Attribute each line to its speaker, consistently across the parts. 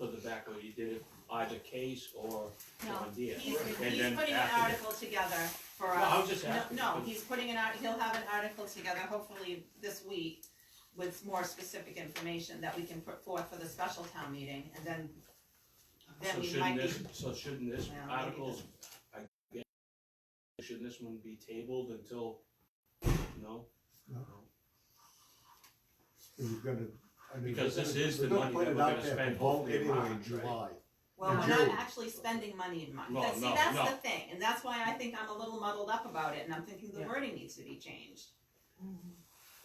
Speaker 1: exactly, you did it either case or
Speaker 2: No,
Speaker 1: John Deere.
Speaker 2: he's,
Speaker 1: And
Speaker 2: he's
Speaker 1: then
Speaker 2: putting an
Speaker 1: after-
Speaker 2: article together for
Speaker 1: No,
Speaker 2: us.
Speaker 1: I was just
Speaker 2: No,
Speaker 1: asking.
Speaker 2: No, he's putting an art, he'll have an article together hopefully this week with more specific information that we can put forth for the special town meeting, and then, then
Speaker 1: So
Speaker 2: we might
Speaker 1: shouldn't
Speaker 2: be.
Speaker 1: this, so shouldn't this
Speaker 2: Well, maybe
Speaker 1: articles, I guess, shouldn't this one be tabled until, no?
Speaker 3: No. We've got to. I mean,
Speaker 1: Because
Speaker 3: we're
Speaker 1: this
Speaker 3: gonna-
Speaker 1: is the money
Speaker 3: put
Speaker 1: that
Speaker 3: it
Speaker 1: we're
Speaker 3: out
Speaker 1: gonna
Speaker 3: there
Speaker 1: spend
Speaker 3: for vote
Speaker 1: hopefully in
Speaker 3: Anyway, in
Speaker 1: March, right?
Speaker 3: July.
Speaker 2: Well,
Speaker 3: in
Speaker 2: we're not
Speaker 3: June.
Speaker 2: actually spending money in March,
Speaker 1: No,
Speaker 2: That- see,
Speaker 1: no,
Speaker 2: that's
Speaker 1: no.
Speaker 2: the thing, and that's why I think I'm a little muddled up about it, and I'm thinking the
Speaker 1: Yeah.
Speaker 2: wording needs to be changed.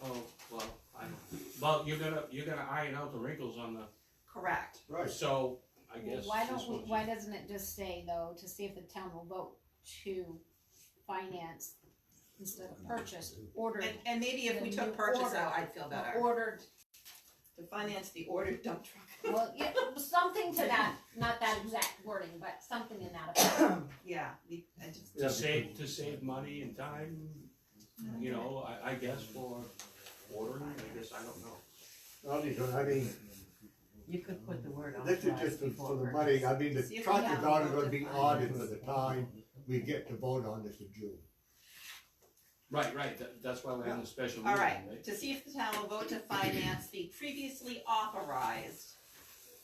Speaker 1: Oh, well, I don't, well, you're gonna, you're gonna iron out the wrinkles on the,
Speaker 2: Correct,
Speaker 3: Right,
Speaker 1: so, I guess
Speaker 4: Why
Speaker 1: this
Speaker 4: don't we,
Speaker 1: one's-
Speaker 4: why doesn't it just say though, to see if the town will vote to finance instead of purchase, ordered,
Speaker 2: and, and maybe if we
Speaker 4: The new
Speaker 2: took purchase
Speaker 4: order.
Speaker 2: out, I'd feel
Speaker 4: the
Speaker 2: better,
Speaker 4: ordered,
Speaker 2: to finance the ordered dump truck.
Speaker 4: well, yeah, something to that, not that exact wording, but something in that. effect.
Speaker 2: Yeah, we, I just,
Speaker 3: Yeah,
Speaker 1: To save, to save money and time, you know, I, I guess for ordering, I guess, I don't know.
Speaker 3: I'll need to- I mean,
Speaker 5: You could put the word
Speaker 3: this is
Speaker 5: authorized
Speaker 3: just for
Speaker 5: before
Speaker 3: for the
Speaker 5: purchase.
Speaker 3: money, I mean, the
Speaker 2: See if we
Speaker 3: truck
Speaker 2: have
Speaker 3: is already
Speaker 2: enough
Speaker 3: gonna
Speaker 2: to
Speaker 3: be
Speaker 2: finance.
Speaker 3: ordered for the time we get to vote on this in June.
Speaker 1: Right, right, that, that's why we're having a special meeting, right?
Speaker 2: alright, to see if the town will vote to finance the previously authorized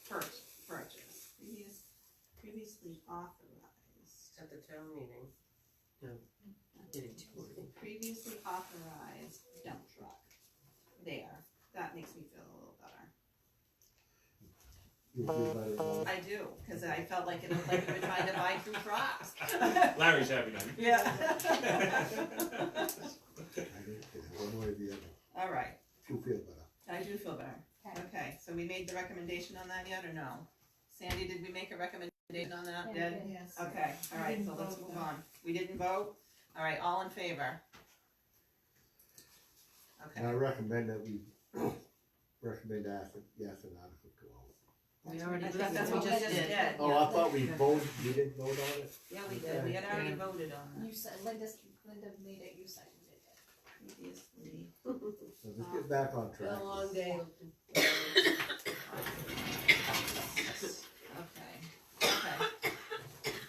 Speaker 2: pur- purchase. Previous, previously authorized,
Speaker 5: At the town meeting. No. Did it too early.
Speaker 2: previously authorized dump truck. There, that makes me feel a little better.
Speaker 3: You'll do better than
Speaker 2: I do, cause I felt like it was like we were trying to buy two trucks.
Speaker 1: Larry's having them.
Speaker 2: Yeah.
Speaker 3: I don't care, One way or the other,
Speaker 2: Alright,
Speaker 3: you feel better.
Speaker 2: I do feel better.
Speaker 4: Okay.
Speaker 2: Okay, so we made the recommendation on that yet or no? Sandy, did we make a recommendation on that?
Speaker 4: Yeah,
Speaker 2: Did?
Speaker 4: we did.
Speaker 6: Yes.
Speaker 2: Okay, all right,
Speaker 6: didn't
Speaker 2: so let's
Speaker 6: vote,
Speaker 2: move
Speaker 6: though.
Speaker 2: on. We didn't vote? All right, all in favor? Okay,
Speaker 3: And I recommend that we, recommend that, yes, an article go out.
Speaker 5: We already
Speaker 2: I
Speaker 5: did
Speaker 2: think that's
Speaker 5: we
Speaker 2: what we
Speaker 5: just did.
Speaker 2: did.
Speaker 3: Oh, I thought we voted, we didn't vote on it?
Speaker 2: Yeah, we did, we had already
Speaker 5: Yeah.
Speaker 2: voted on that
Speaker 4: You said, Linda, Linda made it, you seconded it.
Speaker 2: previously.
Speaker 3: So let's get back on
Speaker 5: Been
Speaker 3: track.
Speaker 5: a long day.
Speaker 2: Okay, okay,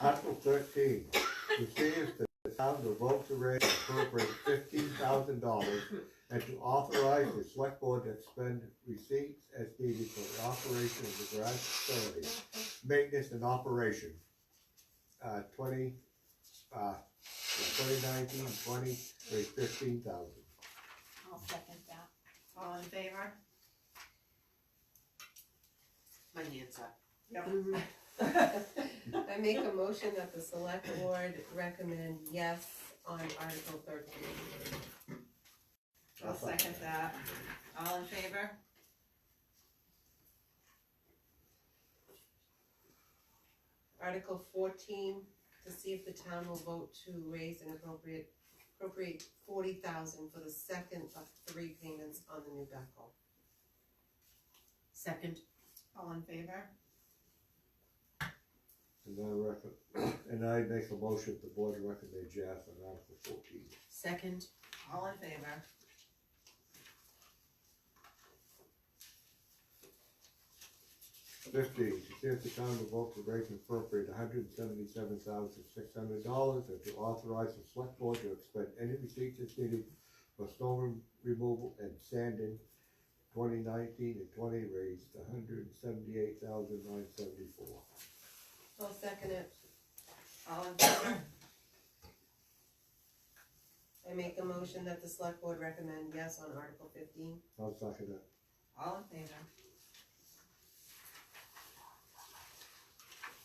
Speaker 3: Article thirteen, to see if the town will vote to raise and appropriate fifteen thousand dollars and to authorize the select board to expend receipts as needed for the operation of the garage facility, maintenance and operation. Uh, twenty, uh, twenty nineteen, twenty, raise fifteen thousand.
Speaker 4: I'll second that.
Speaker 2: all in favor?
Speaker 5: My hands up.
Speaker 2: Yep.
Speaker 5: I make a motion that the select board recommend yes on Article thirteen.
Speaker 2: I'll second that. All in favor?
Speaker 5: Article fourteen, to see if the town will vote to raise and appropriate, appropriate forty thousand for the second of three payments on the new backhoe. Second.
Speaker 2: All in favor?
Speaker 3: And I reckon, and I make a motion that the board recommend Jeff on Article fourteen.
Speaker 5: Second.
Speaker 2: All in favor?
Speaker 3: Fifteen, to see if the town will vote to raise and appropriate hundred and seventy-seven thousand six hundred dollars and to authorize the select board to expend any receipts as needed for snow removal and sanding. Twenty nineteen and twenty raised $178,974.
Speaker 5: I'll second it.
Speaker 2: All in favor?
Speaker 5: I make a motion that the select board recommend yes on Article fifteen.
Speaker 3: I'll second it.
Speaker 2: All in favor?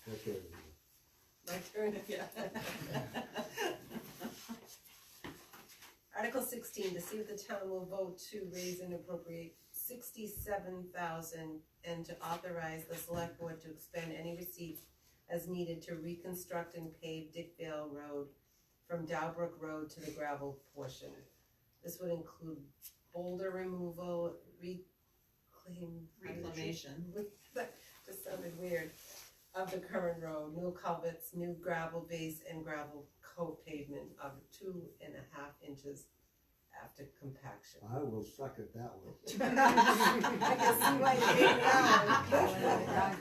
Speaker 3: That's it.
Speaker 5: My turn.
Speaker 2: Yeah.
Speaker 5: Article sixteen, to see if the town will vote to raise and appropriate sixty-seven thousand and to authorize the select board to expend any receipts as needed to reconstruct and pave Dickvale Road from Dowbrook Road to the gravel portion. This would include boulder removal, reclaim.
Speaker 2: Reclamation.
Speaker 5: Just sounded weird, of the current road, new culverts, new gravel base and gravel co-pavement of two and a half inches after compaction.
Speaker 3: I will second that one.
Speaker 5: I can see why you hate that one.